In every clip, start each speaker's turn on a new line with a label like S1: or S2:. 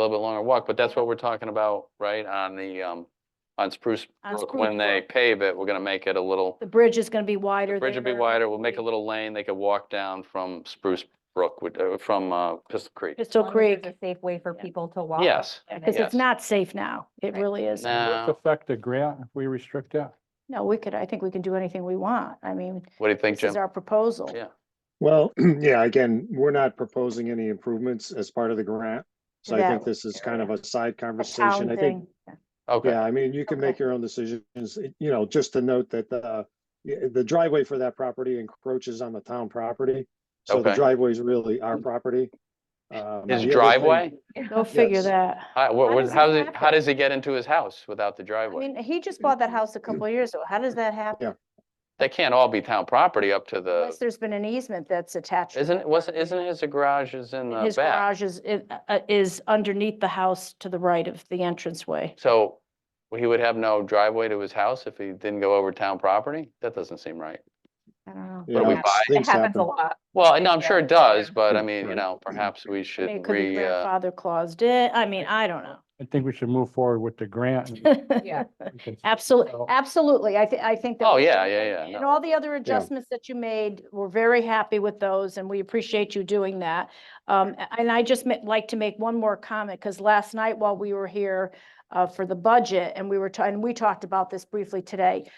S1: little bit longer walk, but that's what we're talking about, right, on the, um, on Spruce
S2: On
S1: Brook.
S2: Spruce
S1: When they
S2: Brook.
S1: pave it, we're gonna make it a little,
S2: The bridge is gonna be wider.
S1: bridge will be
S2: there.
S1: wider, we'll make a little lane, they could walk down from Spruce Brook, with- uh, from, uh, Pistol Creek.
S2: Pistol
S3: long as
S2: Creek,
S3: there's a Safe way for
S2: Yeah.
S3: people to walk.
S1: Yes.
S3: and
S2: because
S3: then-
S1: Yes.
S2: it's not safe now. It
S3: Right.
S2: really is.
S4: Does
S1: Now,
S4: this affect the grant if we restrict that?
S2: No, we could, I think we can do anything we want. I mean,
S1: what do you think,
S2: this is
S1: Jim?
S2: our proposal.
S1: Yeah,
S5: Well, yeah, again, we're not proposing any improvements as part of the grant. So I think
S2: That-
S5: this is kind of a side
S2: A town
S5: conversation. I think,
S2: thing.
S1: okay,
S5: yeah, I mean, you can
S2: Okay.
S5: make your own decisions, It- you know, just to note that the, yeah, the driveway for that property encroaches on the town property. So the
S1: Okay.
S5: driveway is really our property. Um, the other
S1: his
S5: thing-
S1: driveway,
S2: Go figure
S5: Yes.
S2: that.
S1: how, what,
S2: How
S1: what-
S2: does
S1: how
S2: it
S1: does it, how
S2: happen?
S1: does he get into his house without the
S2: I
S1: driveway?
S2: mean, he just bought that house a couple of years ago. How does that happen?
S1: They can't all be town property up to
S2: Unless
S1: the,
S2: there's been an easement that's attached. to
S1: isn't,
S2: that
S1: wasn't,
S2: property.
S1: isn't his garage is in
S2: And
S1: the
S2: His
S1: back?
S2: garage is, i- uh, is underneath the house to the right of the entranceway.
S1: So he would have no driveway to his house if he didn't go over town property? That doesn't seem right.
S2: I don't know.
S1: What do we
S5: Yeah,
S1: buy?
S3: It
S5: things
S3: happens a
S5: happen.
S3: lot.
S1: Well, no, I'm sure it does, but I
S5: Mm,
S1: mean, you
S5: right.
S1: know, perhaps we
S2: I mean, it
S1: should
S2: could be
S1: re, uh,
S2: grandfather claused in. I mean, I don't
S4: I think we should move forward with the grant. and
S2: know.
S3: Yeah.
S4: we can-
S2: Absolutely,
S4: So-
S2: absolutely. I think, I think. that
S1: Oh,
S2: we-
S1: yeah, yeah, yeah,
S2: And
S1: no.
S2: all the other adjustments that you made, we're very happy with those and we appreciate you doing that. Um, a- and I just ma- like to make one more comment because last night while we were here uh, for the budget and we were, ta- and we talked about this briefly today.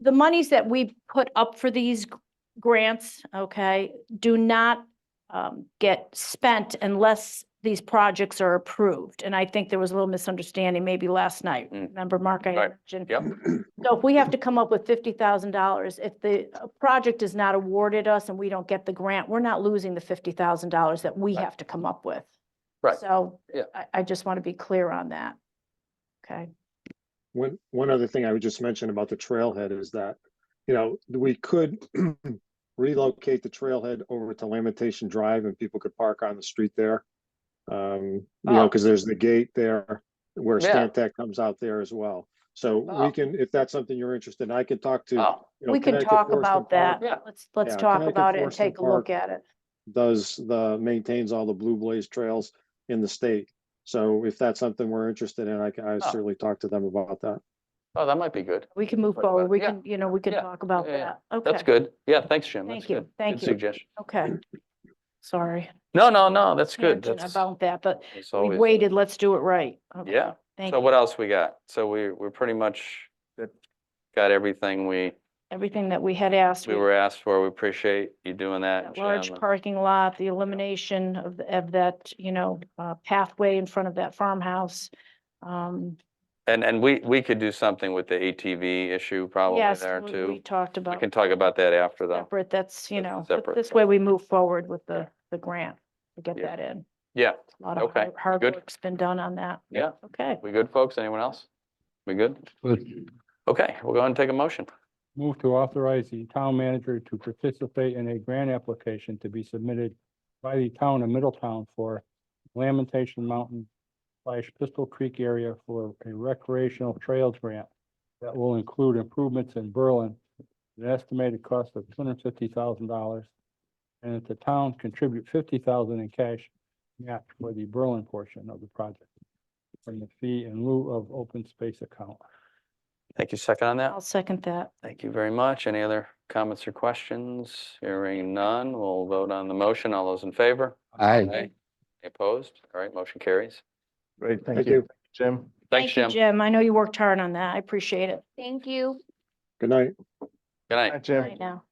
S2: The monies that we put up for these g- grants, okay, do not um, get spent unless these projects are approved. And I think there was a little misunderstanding maybe last night.
S1: Mm.
S2: Remember, Mark, I
S1: Right.
S2: mentioned.
S1: yep,
S2: So if we have to come up with fifty thousand dollars, if the uh, project is not awarded us and we don't get the grant, we're not losing the fifty thousand dollars that we
S1: Right.
S2: have to come up with.
S1: Right.
S2: So
S1: Yeah.
S2: I, I just want to be clear on that. Okay,
S5: One, one other thing I would just mention about the trailhead is that, you know, we could relocate the trailhead over to Lamentation Drive and people could park on the street there. Um, you know,
S1: Oh.
S5: because there's the gate there where
S1: Yeah.
S5: Stantec comes out there as well. So
S1: Oh.
S5: we can, if that's something you're interested in, I could talk to,
S1: oh,
S5: you know,
S2: we can
S5: Connecticut
S2: talk
S5: Forest and
S2: about
S5: Park
S2: that.
S1: Yeah.
S2: Let's, let's
S5: Yeah,
S2: talk
S5: Connecticut
S2: about it and
S5: Forest and
S2: take a look
S5: Park.
S2: at it.
S5: Does the, maintains all the Blue Blaze trails in the state. So if that's something we're interested in, I can, I
S1: Oh.
S5: certainly talk to them about that.
S1: oh, that might be good.
S2: We can move
S1: Talk about
S2: forward.
S1: it.
S2: We
S1: Yeah.
S2: can, you know, we can
S1: Yeah.
S2: talk about
S1: Yeah, yeah.
S2: that. Okay.
S1: That's good. Yeah, thanks, Jim. That's
S2: Thank you,
S1: good.
S2: thank
S1: Good
S2: you.
S1: suggestion.
S2: Okay. Sorry.
S1: No, no, no, that's good.
S2: tangent
S1: That's,
S2: About that, but
S1: that's
S2: we
S1: always,
S2: waited. Let's do it right. Okay,
S1: yeah.
S2: Thank
S1: So
S2: you.
S1: what else we got? So we, we're pretty much got everything we,
S2: Everything that we had asked.
S1: we
S2: we-
S1: were asked for. We appreciate you doing that,
S2: That large
S1: Jim. and-
S2: parking lot, the elimination of, th- of that, you know, uh, pathway in front of that farmhouse. Um,
S1: And, and we, we could do something with the ATV issue probably
S2: yes,
S1: there
S2: we-
S1: too.
S2: We talked
S1: We
S2: about
S1: can talk about that after though.
S2: separate, that's, you
S1: That's a
S2: know, but
S1: separate
S2: this
S1: thing.
S2: way we move forward with the, the grant to get
S1: Yeah.
S2: that in.
S1: Yeah,
S2: A lot of
S1: Okay,
S2: hard- hard
S1: good.
S2: work's been done on that.
S1: yeah.
S2: Okay.
S1: We good, folks? Anyone else? We good? Okay, we'll go ahead and take a motion.
S4: Move to authorize the town manager to participate in a grant application to be submitted by the town of Middletown for Lamentation Mountain slash Pistol Creek area for a recreational trails grant that will include improvements in Berlin, at an estimated cost of two hundred fifty thousand dollars. And that the town contribute fifty thousand in cash match for the Berlin portion of the project from the fee in lieu of open space account.
S1: Thank you. Second on
S2: I'll
S1: that.
S2: second that.
S1: Thank you very much. Any other comments or questions? Hearing none, we'll vote on the motion. All those in favor?
S6: Aye.
S1: Aye. Opposed? All right, motion carries.
S6: Great,
S5: Thank you.
S6: Jim.
S1: Thanks,
S2: Thank
S1: Jim.
S2: you,
S1: Good
S2: Jim, I know you worked hard on that. I appreciate it
S3: Thank you.
S5: Good night.
S1: night.
S6: Hi,
S2: right
S6: Jim.
S2: now.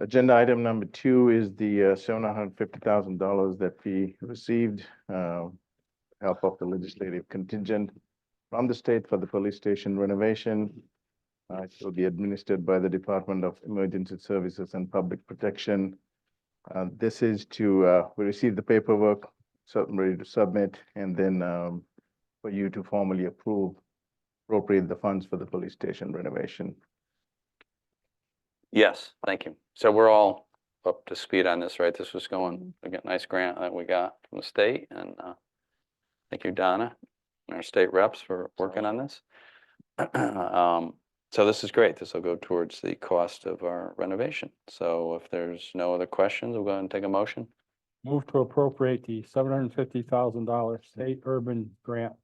S6: Agenda item number two is the seven hundred fifty thousand dollars that we received, uh, help of the legislative contingent from the state for the police station renovation. Uh, It will be administered by the Department of Emergency Services and Public Protection. Uh, This is to, uh, we received the paperwork, so I'm ready to submit, and then um, for you to formally approve, appropriate the funds for the police station renovation.
S1: Yes, thank you. So we're all up to speed on this, right? This was going, we got a nice grant that we got from the state and uh, thank you, Donna, and our state reps for working on this. Um, So this is great. This will go towards the cost of our renovation. So if there's no other questions, we'll go ahead and take a motion.
S4: Move to appropriate the seven hundred and fifty thousand dollar state urban grant